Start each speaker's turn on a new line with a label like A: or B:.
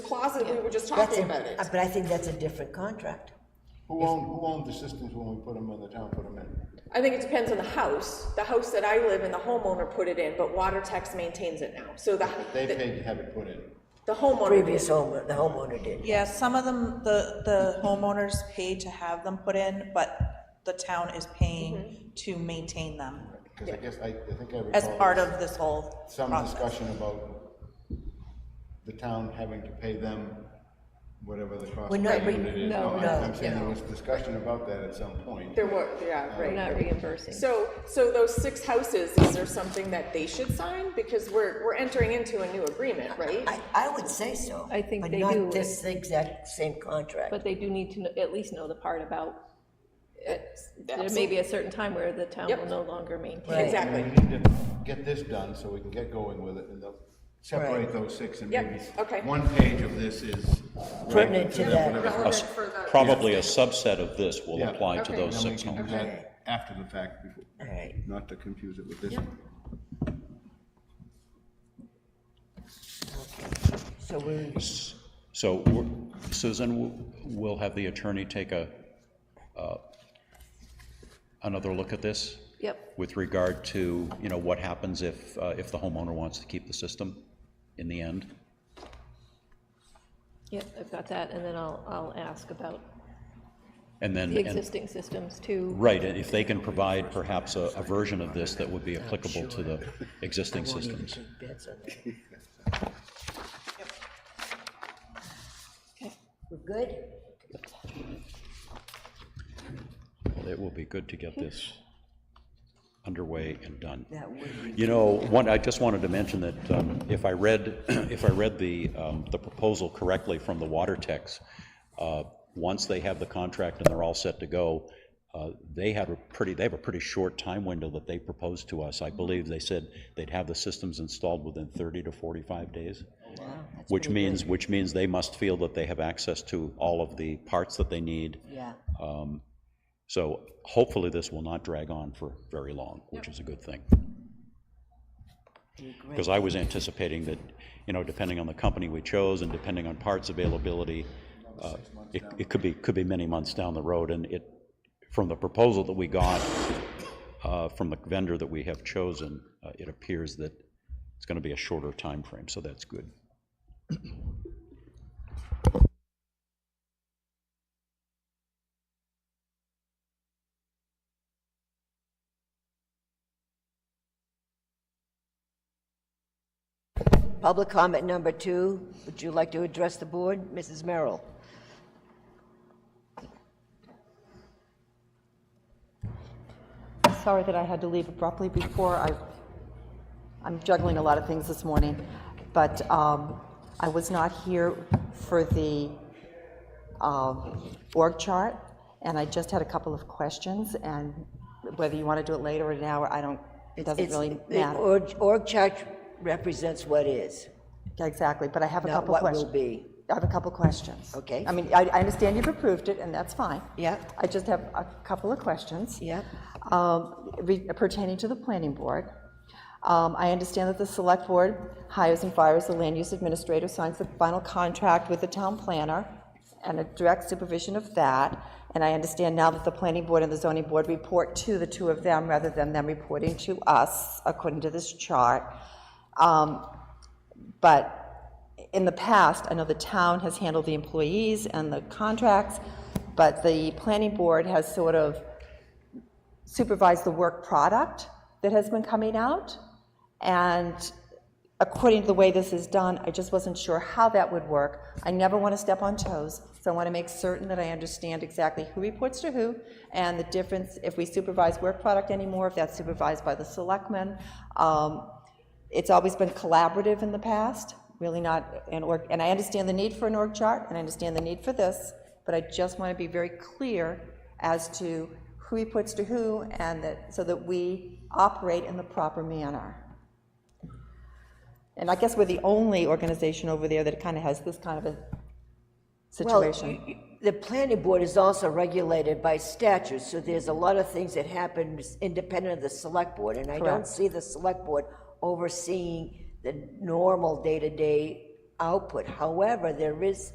A: closet, we were just
B: That's
A: talking
B: a-
A: about it.
B: uh, But I think that's a different contract.
C: Who owned, who owned the systems when we put them in, the town put them in?
A: I think it depends on the house. The house that I live in, the homeowner put it in, but Water Tex maintains it now. So the,
C: They
A: the-
C: paid to have it put in.
A: the homeowner did.
B: Previous homeowner, the homeowner did.
D: Yeah, some of them, the, the homeowners paid to have them put in, but the town is paying to maintain them
C: Because I guess, I, I think I recall.
D: as part of this whole
C: Some
D: process.
C: discussion about the town having to pay them whatever the cost
B: We're
C: of
B: not
C: the
B: re-
C: unit is.
B: no,
C: I'm-
B: no,
C: I'm saying there was discussion about that at some point.
A: There were, yeah,
B: Oh,
E: We're
A: right.
E: not reimbursing.
A: So, so those six houses, is there something that they should sign? Because we're, we're entering into a new agreement, right?
B: I, I would say so.
E: I think they
B: But
E: do.
B: not this exact same contract.
E: But they do need to kn- at least know the part about, uh, there may
A: Absolutely.
E: be a certain time where the town
A: Yep.
E: will no longer maintain.
B: Right.
C: I mean,
A: Exactly.
C: We need to get this done so we can get going with it and they'll separate
B: Right.
C: those six and
A: Yep,
C: maybe.
A: okay.
C: One page of this is.
B: Pertinent to that.
C: whatever.
A: Relevant for the-
F: Probably a subset of this will
C: Yeah.
F: apply to
A: Okay.
F: those
C: And then we
F: six
C: can do
F: homes.
C: that after the fact, before-
B: All right.
C: not to confuse it with this one.
B: So we,
F: So we're- Susan, w- we'll have the attorney take a, uh, another look at this
E: Yep,
F: with regard to, you know, what happens if, uh, if the homeowner wants to keep the system in the end.
E: yep, I've got that, and then I'll, I'll ask about
F: And then,
E: the
F: and-
E: existing systems too.
F: right, and if they can provide perhaps a, a version of this that would be applicable to the existing systems.
B: take bets on that.
E: Okay.
B: We're good?
F: It will be good to get this underway and done.
B: That would be.
F: You know, one, I just wanted to mention that um, if I read, if I read the, um, the proposal correctly from the water techs, uh, once they have the contract and they're all set to go, uh, they have a pretty, they have a pretty short time window that they proposed to us. I believe they said they'd have the systems installed within 30 to 45 days.
B: Oh,
F: Which means, which means they must feel that they have access to all of the parts that they need.
B: Yeah.
F: So hopefully this will not drag on for very long, which is a good thing. Because I was anticipating that, you know, depending on the company we chose and depending on parts availability, uh, it, it could be, could be many months down the road. And it, from the proposal that we got, uh, from the vendor that we have chosen, uh, it appears that it's going to be a shorter time frame. so that's good.
B: Public comment number two, would you like to address the board? Mrs. Merrill?
G: Sorry that I had to leave abruptly before. I, I'm juggling a lot of things this morning, but um, I was not here for the um, org chart, and I just had a couple of questions, and whether you want to do it later or now, I don't, it doesn't
B: It's-
G: really
B: the
G: matter.
B: org- Org chart represents what is,
G: Exactly, but I have a
B: not
G: couple
B: what
G: questions.
B: will be.
G: I have a couple questions.
B: Okay.
G: I mean, I, I understand you've approved it, and that's fine.
B: Yeah.
G: I just have a couple of questions.
B: Yep.
G: Um, re- pertaining to the planning board. Um, I understand that the select board hires and fires the land use administrator, signs the final contract with the town planner, and a direct supervision of that. And I understand now that the planning board and the zoning board report to the two of them rather than them reporting to us, according to this chart. Um, But in the past, I know the town has handled the employees and the contracts, but the planning board has sort of supervised the work product that has been coming out. And according to the way this is done, I just wasn't sure how that would work. I never want to step on toes, so I want to make certain that I understand exactly who reports to who and the difference if we supervise work product anymore, if that's supervised by the selectmen. Um, it's always been collaborative in the past, really not an org, and I understand the need for an org chart, and I understand the need for this, but I just want to be very clear as to who he puts to who, and that, so that we operate in the proper manner. And I guess we're the only organization over there that kind of has this kind of a
B: Well,
G: situation.
B: y- y- The planning board is also regulated by statute, so there's a lot of things that happen independent of the select board. And I don't
G: Correct.
B: see the select board overseeing the normal day-to-day output. However, there is